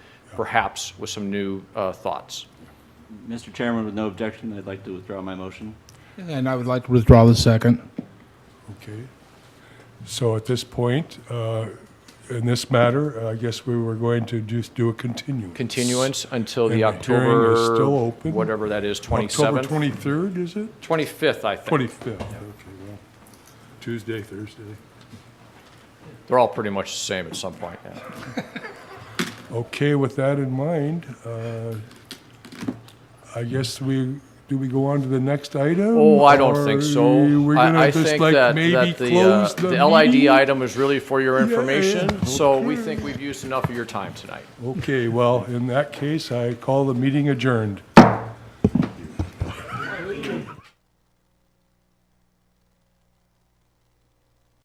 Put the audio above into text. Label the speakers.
Speaker 1: perhaps with some new uh, thoughts.
Speaker 2: Mr. Chairman, with no objection, I'd like to withdraw my motion.
Speaker 3: And I would like to withdraw the second.
Speaker 4: Okay. So at this point, uh, in this matter, I guess we were going to just do a continuance.
Speaker 1: Continuance until the
Speaker 4: And the hearing is still
Speaker 1: October,
Speaker 4: open?
Speaker 1: whatever that is,
Speaker 4: October
Speaker 1: 27th?
Speaker 4: 23rd, is it?
Speaker 1: 25th, I think.
Speaker 4: 25th, okay, well, Tuesday, Thursday.
Speaker 1: They're all pretty much the same at some point, yeah.
Speaker 4: Okay, with that in mind, uh, I guess we, do we go on to the next item?
Speaker 1: Oh, I don't think
Speaker 4: Or
Speaker 1: so.
Speaker 4: We're
Speaker 1: I-
Speaker 4: gonna
Speaker 1: I
Speaker 4: just
Speaker 1: think
Speaker 4: like
Speaker 1: that-
Speaker 4: maybe
Speaker 1: that the, uh,
Speaker 4: close the
Speaker 1: The LID
Speaker 4: meeting?
Speaker 1: item is really for your information,
Speaker 4: Yeah,
Speaker 1: so we
Speaker 4: okay.
Speaker 1: think we've used enough of your time tonight.
Speaker 4: Okay, well, in that case, I call the meeting adjourned.